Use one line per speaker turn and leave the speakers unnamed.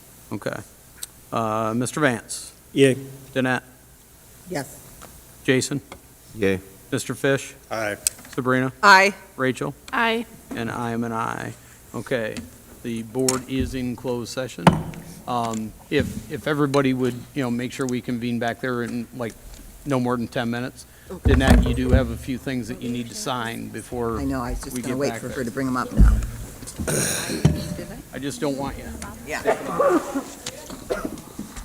Okay. Uh, Mr. Vance?
Yay.
Danette?
Yes.
Jason?
Yay.
Mr. Fish?
Aye.
Sabrina?
Aye.
Rachel?
Aye.
And I am an aye. Okay, the board is in closed session. Um, If, if everybody would, you know, make sure we convene back there in like no more than 10 minutes. Danette, you do have a few things that you need to sign before.
I know, I was just
We
going to
get
wait
back
for
there.
her to bring them up now.
I just don't want you.
Yeah.